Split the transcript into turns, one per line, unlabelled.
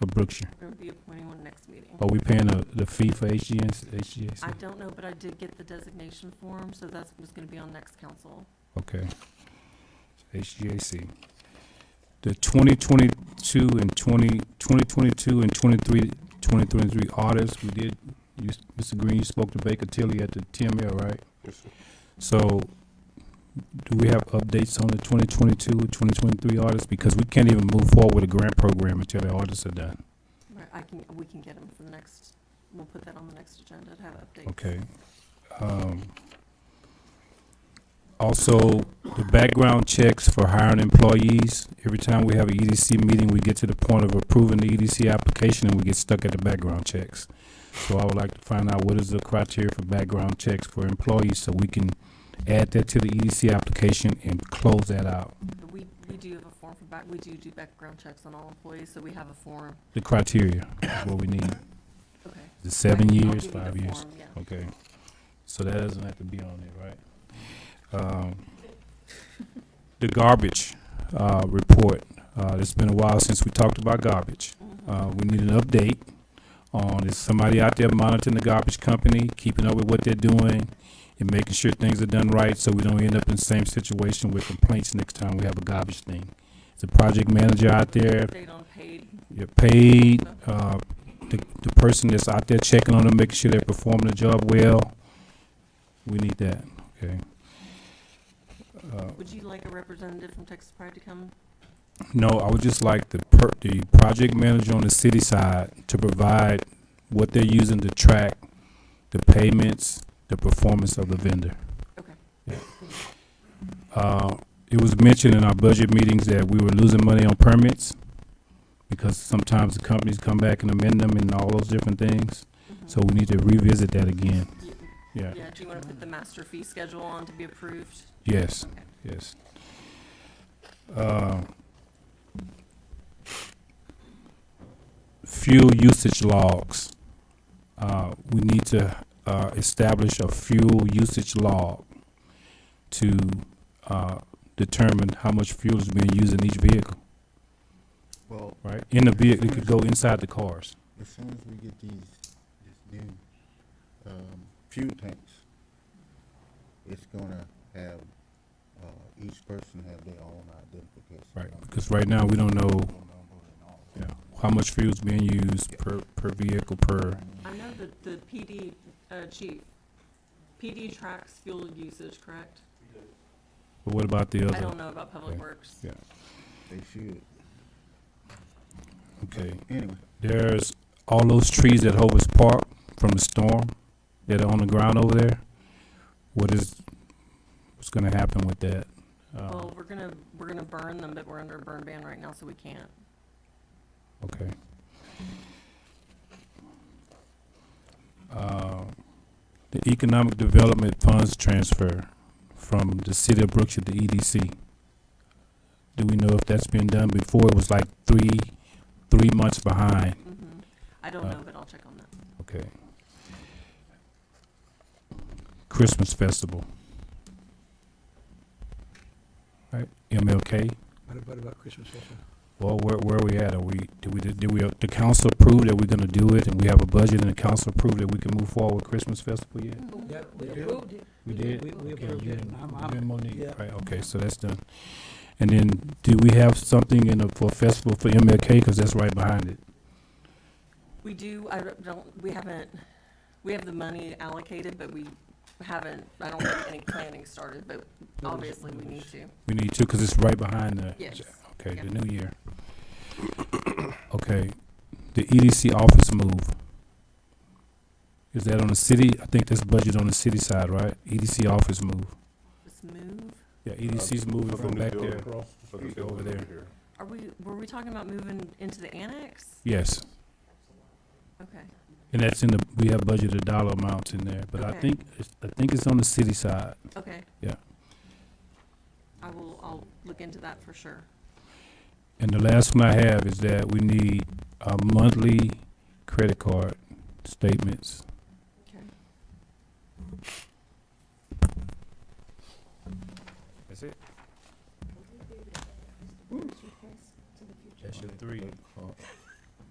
of Brookshire.
We'll be appointing one next meeting.
Are we paying the, the fee for HGS, HGS?
I don't know, but I did get the designation form, so that's what's gonna be on next council.
Okay. HGAC. The twenty twenty-two and twenty, twenty twenty-two and twenty-three, twenty twenty-three audits, we did, you, Mr. Green, you spoke to Baker Tilly at the TML, right?
Yes, sir.
So, do we have updates on the 2022, 2023 audits? Because we can't even move forward with a grant program until the audits are done,
Right, I can, we can get them for the next, we'll put that on the next agenda to have updates.
okay? Um, Also, the background checks for hiring employees, every time we have an EDC meeting, we get to the point of approving the EDC application and we get stuck at the background checks. So I would like to find out what is the criteria for background checks for employees, so we can add that to the EDC application and close that out.
But We, we do have a form for back, we do do background checks on all employees, so we have a form.
the criteria is what we need.
Okay.
The seven
Right, I'll
years,
give you the
five years.
form, yeah.
Okay. So that doesn't have to be on it, right? Um, the garbage, uh, report. Uh, it's been a while since we talked about garbage.
Mhm.
Uh, we need an update on is somebody out there monitoring the garbage company, keeping up with what they're doing and making sure things are done right so we don't end up in the same situation with complaints next time we have a garbage thing. Is the project manager out there
Date on paid,
you're paid, uh, the, the person that's out there checking on them, making sure they're performing the job well. We need that, okay? Uh,
would you like a representative from Texas Pride to come?
No, I would just like the per, the project manager on the city side to provide what they're using to track the payments, the performance of the vendor.
Okay.
Yeah. Uh, it was mentioned in our budget meetings that we were losing money on permits because sometimes the companies come back and amend them and all those different things.
Mhm.
So we need to revisit that again.
Y-
Yeah.
Mm-hmm. Yeah, do you wanna put the master fee schedule on to be approved?
Yes, yes. Uh, Fuel usage logs. Uh, We need to uh, establish a fuel usage log to uh, determine how much fuel is being used in each vehicle,
Well,
right? In the vehicle, it could go inside the cars.
as soon as we get these, this new, um, fuel tanks, it's gonna have, uh, each person have their own identification.
Right,
number,
because right now, we don't know
phone number and all that.
yeah, how much fuel is being used per, per vehicle, per,
I know that the PD, uh, chief, PD tracks fuel usage, correct?
but what about the
I
other?
don't know about Public
Okay.
Works.
Yeah.
They should,
Okay.
anyway.
There's all those trees at Hovis Park from the storm that are on the ground over there. What is, what's gonna happen with that? Uh,
Well, we're gonna, we're gonna burn them, but we're under a burn ban right now, so we can't.
Okay. Uh, The Economic Development Funds transfer from the city of Brookshire to EDC. Do we know if that's been done before? It was like three, three months behind.
Mhm. I don't
Uh,
know, but I'll check on that.
Okay. Christmas Festival. Right, MLK,
What about, about Christmas also?
well, where, where we at, are we, do we, do we, uh, the council approve that we're gonna do it, and we have a budget, and the council approved that we can move forward with Christmas Festival yet?
Yeah, we
We
do.
approved it.
We
We-
did?
we- we
Okay,
approved
you
it.
and-
I'm-
you
I'm-
and Monique,
yeah.
Right, okay, so that's done. And then, do we have something in the, for festival for MLK, cause that's right behind it?
We do, I don't- don't, we haven't, we have the money allocated, but we haven't, I don't think any planning started, but obviously we need to.
We need to, cause it's right behind the.
Yes.
Okay,
Yeah.
the new year. Okay, the EDC office move. Is that on the city? I think that's budget on the city side, right? EDC office move.
Let's move.
Yeah, E EDC's moving from back there. Over there.
Are we, were we talking about moving into the annex?
Yes,
Okay.
and that's in the, we have budgeted dollar amounts in there, but I
Okay.
think, it's- I think it's on the city side.
Okay.
Yeah.
I will, I'll look into that for sure.
And the last one I have is that we need a monthly credit card statements.
Okay.
That's it? That's your three.
Oh,